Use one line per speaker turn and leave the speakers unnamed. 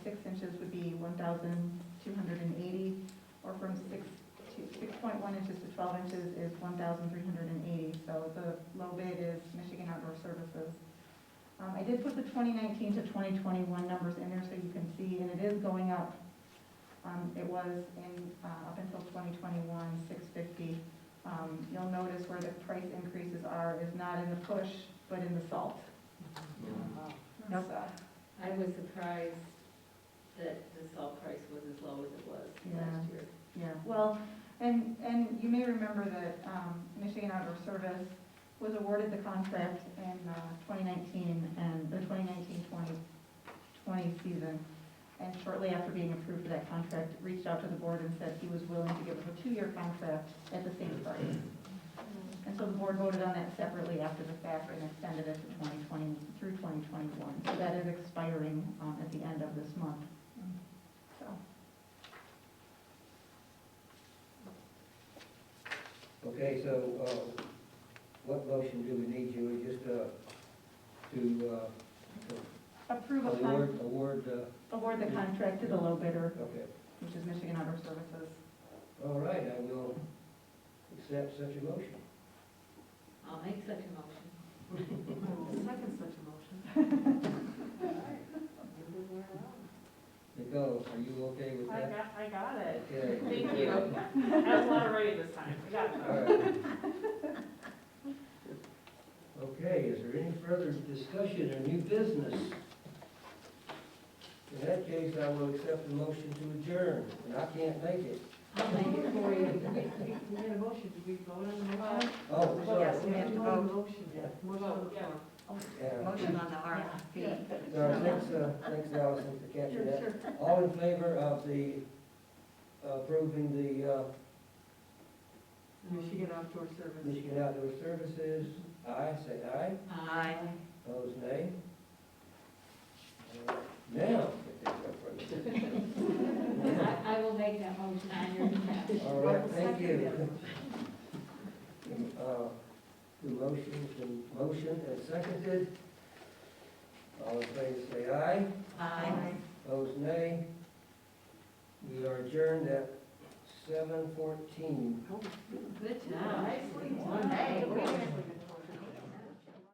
thousand two hundred and eighty, or from six to, six point one inches to twelve inches is one thousand three hundred and eighty. So the low bid is Michigan Outdoor Services. Um, I did put the twenty nineteen to twenty twenty-one numbers in there so you can see, and it is going up. Um, it was in, uh, up until twenty twenty-one, six fifty. Um, you'll notice where the price increases are is not in the push, but in the salt.
Yep.
So,
I was surprised that the salt price was as low as it was
Yeah.
last year.
Yeah, well, and, and you may remember that um, Michigan Outdoor Service was awarded the contract in uh, 2019 and the 2019-2020 season. And shortly after being approved for that contract, reached out to the board and said he was willing to give us a two-year contract at the same price. And so the board voted on that separately after the fact and extended it to 2020 through 2021. So that is expiring um, at the end of this month. So.
Okay, so, uh, what motion do we need, Julie, just, uh, to, uh,
Approve a contract.
award, award, uh,
award the contract to the low bidder,
okay.
which is Michigan Outdoor Services.
All right, I will accept such a motion.
I'll make such a motion.
Second such a motion.
Nicole, are you okay with
I
that?
got, I got it.
Okay.
Thank you. I was not ready this time. I got
All
it.
right. Okay, is there any further discussion or new business? In that case, I will accept the motion to adjourn, and I can't make it.
I'll make it for you.
We had a motion, did we vote on the
Uh,
motion?
Oh, sorry.
Yes, we have to
Vote on
vote.
the Motion, yeah. Motion on the
Yeah.
floor.
Yeah.
Motion on
the
RFP.
No, thanks, uh, thanks Allison for catching that. All in favor of the, approving the, uh,
Michigan Outdoor Service.
Michigan Outdoor Services, aye, say aye,
Aye.
opposed nay. Uh, Now.
I, I will make that motion on your behalf.
All right, thank you. Uh, The motion, the motion is seconded. All in favor, say aye.
Aye.
Opposed, nay. We are adjourned at seven fourteen.
Good job.
Nicely done.
Hey, wait a minute.